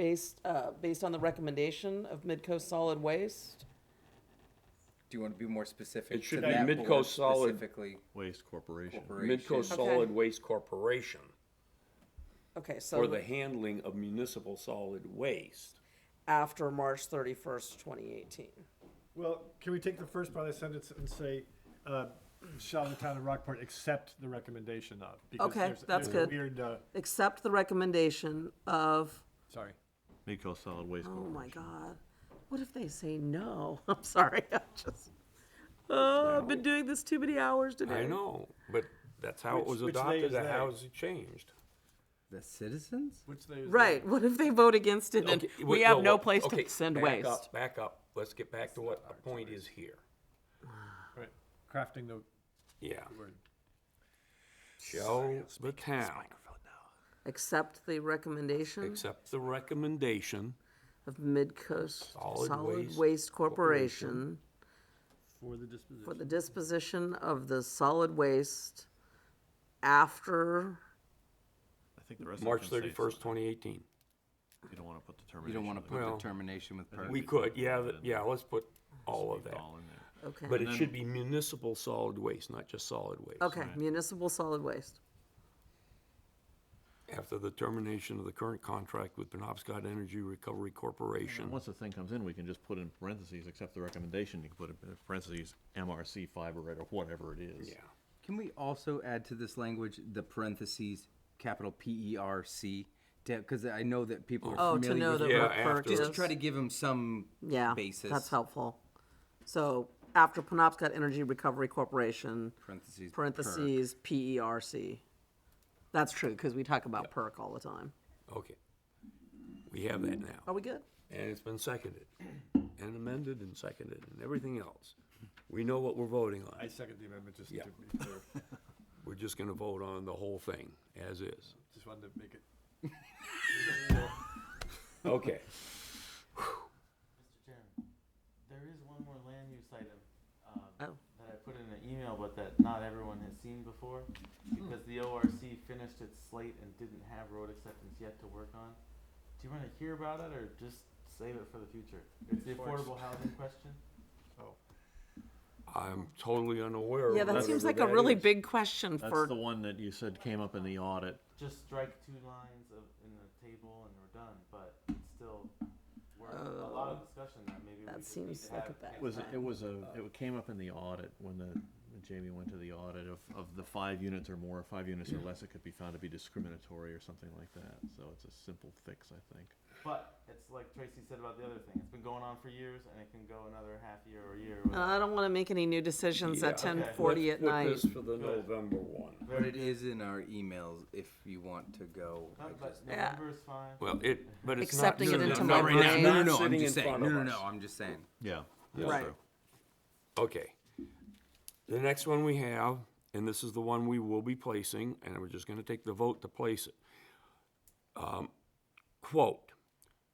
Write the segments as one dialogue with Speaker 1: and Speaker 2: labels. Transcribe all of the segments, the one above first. Speaker 1: based, uh, based on the recommendation of Midco Solid Waste.
Speaker 2: Do you want to be more specific?
Speaker 3: It should
Speaker 2: to
Speaker 3: be
Speaker 2: that
Speaker 3: Midco
Speaker 2: board
Speaker 3: Solid
Speaker 2: Specifically,
Speaker 4: Waste Corporation.
Speaker 2: corporation.
Speaker 3: Midco Solid Waste Corporation
Speaker 1: Okay, so
Speaker 3: for the handling of municipal solid waste.
Speaker 1: after March thirty-first, twenty eighteen.
Speaker 5: Well, can we take the first part of the sentence and say, uh, shall the town of Rockport accept the recommendation of? Because
Speaker 1: Okay,
Speaker 5: there's-
Speaker 1: that's
Speaker 5: there's a
Speaker 1: good.
Speaker 5: Weird, uh,
Speaker 1: Accept the recommendation of,
Speaker 5: sorry.
Speaker 4: Midco Solid Waste
Speaker 1: oh my
Speaker 4: Corporation.
Speaker 1: God, what if they say no? I'm sorry, I just, oh, I've been doing this too many hours today.
Speaker 3: I know, but that's how it
Speaker 5: Which-
Speaker 3: was
Speaker 5: which they
Speaker 3: adopted,
Speaker 5: is
Speaker 3: and
Speaker 5: they?
Speaker 3: how's it changed?
Speaker 2: the citizens?
Speaker 5: Which they.
Speaker 1: Right, what if they vote against it and
Speaker 3: Okay,
Speaker 1: we
Speaker 3: wait,
Speaker 1: have no
Speaker 3: what-
Speaker 1: place
Speaker 3: okay,
Speaker 1: to send
Speaker 3: back
Speaker 1: waste?
Speaker 3: up, Back up, let's get back to what the point is here,
Speaker 5: Right, crafting the
Speaker 3: yeah.
Speaker 5: word.
Speaker 3: Shall the town
Speaker 1: Accept the recommendation
Speaker 3: accept the recommendation
Speaker 1: of Midcoast
Speaker 3: Solid
Speaker 1: Solid
Speaker 3: Waste
Speaker 1: Waste
Speaker 3: Corporation.
Speaker 1: Corporation
Speaker 5: For the disposition.
Speaker 1: for the disposition of the solid waste after,
Speaker 4: I think the rest of it
Speaker 3: March
Speaker 4: can stay.
Speaker 3: thirty-first, twenty eighteen?
Speaker 4: You don't want to put the termination.
Speaker 2: You don't want to
Speaker 4: of
Speaker 2: put
Speaker 3: Well,
Speaker 2: determination with per.
Speaker 3: We could, yeah, th- yeah, let's put all of
Speaker 4: it
Speaker 3: that.
Speaker 4: all in there.
Speaker 1: okay.
Speaker 3: But it should be municipal solid waste, not just solid waste.
Speaker 1: Okay, municipal solid waste.
Speaker 3: After the termination of the current contract with Penobscot Energy Recovery
Speaker 4: And
Speaker 3: Corporation.
Speaker 4: Once the thing comes in, we can just put in parentheses, accept the recommendation, you can put in parentheses, MRC fiberite or whatever it is.
Speaker 3: Yeah,
Speaker 2: Can we also add to this language the parentheses, capital P E R C? Because I know that people
Speaker 1: Oh,
Speaker 2: are
Speaker 1: to know
Speaker 2: familiar
Speaker 1: that
Speaker 2: with.
Speaker 3: Yeah,
Speaker 1: we're
Speaker 3: after.
Speaker 2: Just to
Speaker 1: purchased.
Speaker 2: try to give them some
Speaker 1: Yeah,
Speaker 2: basis.
Speaker 1: that's helpful. So after Penobscot Energy Recovery Corporation,
Speaker 2: Parentheses. per.
Speaker 1: parentheses, P-E-R-C. That's true, because we talk about perk all the time.
Speaker 3: okay. We have that now,
Speaker 1: Are we good?
Speaker 3: and it's been seconded, and amended and seconded, and everything else. We know what we're voting
Speaker 5: I
Speaker 3: on.
Speaker 5: second the amendment, just to
Speaker 3: Yeah.
Speaker 5: be clear.
Speaker 3: We're just gonna vote on the whole thing, as is.
Speaker 5: Just wanted to make it.
Speaker 3: Okay.
Speaker 6: Mr. Chairman, there is one more land use item um,
Speaker 1: Oh.
Speaker 6: that I put in an email, but that not everyone has seen before,
Speaker 1: Hmm.
Speaker 6: because the ORC finished its slate and didn't have road acceptance yet to work on. Do you want to hear about it, or just save it for the future? It's the affordable housing question.
Speaker 3: I'm totally unaware. of
Speaker 1: Yeah, that
Speaker 3: whatever
Speaker 1: seems like a
Speaker 3: that
Speaker 1: really
Speaker 3: is.
Speaker 1: big question
Speaker 4: That's
Speaker 1: for,
Speaker 4: the one that you said came up in the audit.
Speaker 6: Just strike two lines of, in the table and we're done, but it's still worth a lot of discussion that maybe we
Speaker 1: Oh. that
Speaker 6: just need
Speaker 1: seems
Speaker 6: to
Speaker 1: like
Speaker 6: have
Speaker 1: a bad
Speaker 6: next
Speaker 4: It was,
Speaker 6: time.
Speaker 4: it was a, it came up in the audit when the, when Jamie went to the audit of, of the five units or more, five units or less, it could be found to be discriminatory or something like that. So it's a simple fix, I think.
Speaker 6: But it's like Tracy said about the other thing. It's been going on for years, and it can go another half year or a year.
Speaker 1: and I don't want to make any new decisions at
Speaker 3: Yeah.
Speaker 1: ten
Speaker 6: okay.
Speaker 1: forty at
Speaker 3: Let's put
Speaker 1: night.
Speaker 3: this for the November one.
Speaker 2: But it is in our emails if you want to go. I
Speaker 6: But
Speaker 2: just-
Speaker 1: Yeah.
Speaker 6: November is fine.
Speaker 3: Well, it, but it's not.
Speaker 1: Accepting it
Speaker 3: no, no,
Speaker 1: into
Speaker 3: no,
Speaker 1: my
Speaker 3: right now.
Speaker 1: brain.
Speaker 2: No, no,
Speaker 3: Not
Speaker 2: no, I'm
Speaker 3: sitting
Speaker 2: just
Speaker 3: in
Speaker 2: saying,
Speaker 3: front
Speaker 2: no,
Speaker 3: of
Speaker 2: no,
Speaker 3: us.
Speaker 2: no, I'm just saying.
Speaker 4: Yeah.
Speaker 1: Right.
Speaker 3: Okay. The next one we have, and this is the one we will be placing, and we're just gonna take the vote to place it. Um, Quote,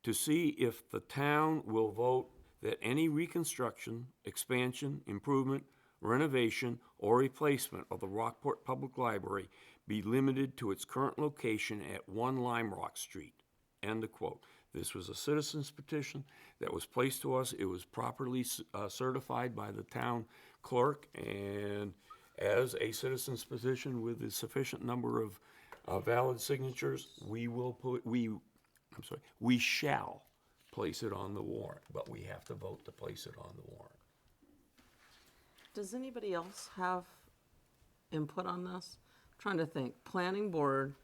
Speaker 3: "To see if the town will vote that any reconstruction, expansion, improvement, renovation, or replacement of the Rockport Public Library be limited to its current location at One Lime Rock Street." End of quote. This was a citizen's petition that was placed to us. It was properly s- uh, certified by the town clerk and as a citizen's petition with a sufficient number of uh, valid signatures, we will put, we, I'm sorry, we shall place it on the warrant, but we have to vote to place it on the warrant.
Speaker 1: Does anybody else have input on this? Trying to think, planning board,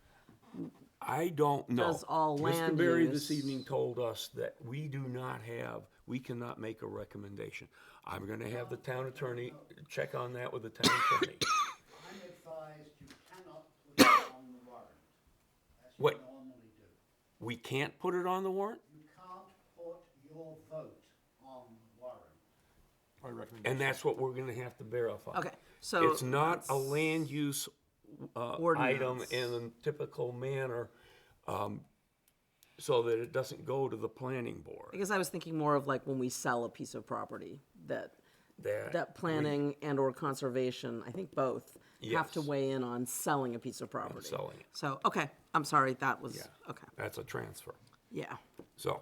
Speaker 3: I don't know.
Speaker 1: Does all land
Speaker 3: Mr. Berry
Speaker 1: use-
Speaker 3: this evening told us that we do not have, we cannot make a recommendation. I'm gonna have the town attorney check on that with the town attorney.
Speaker 7: I'm advised you cannot put it on the warrant, as you
Speaker 3: What?
Speaker 7: normally do.
Speaker 3: We can't put it on the warrant,
Speaker 7: You can't put your vote on warrant.
Speaker 5: Or recommendation.
Speaker 3: and that's what we're gonna have to verify.
Speaker 1: Okay, so
Speaker 3: It's not a land use, uh, item
Speaker 1: Ordinance.
Speaker 3: in a typical manner, um, so that it doesn't go to the planning board.
Speaker 1: because I was thinking more of like when we sell a piece of property, that,
Speaker 3: That.
Speaker 1: that planning and or conservation, I think both, have to
Speaker 3: Yes.
Speaker 1: weigh in on selling a piece of property.
Speaker 3: selling it.
Speaker 1: So, okay, I'm sorry, that was,
Speaker 3: Yeah.
Speaker 1: okay,
Speaker 3: That's a transfer.
Speaker 1: yeah.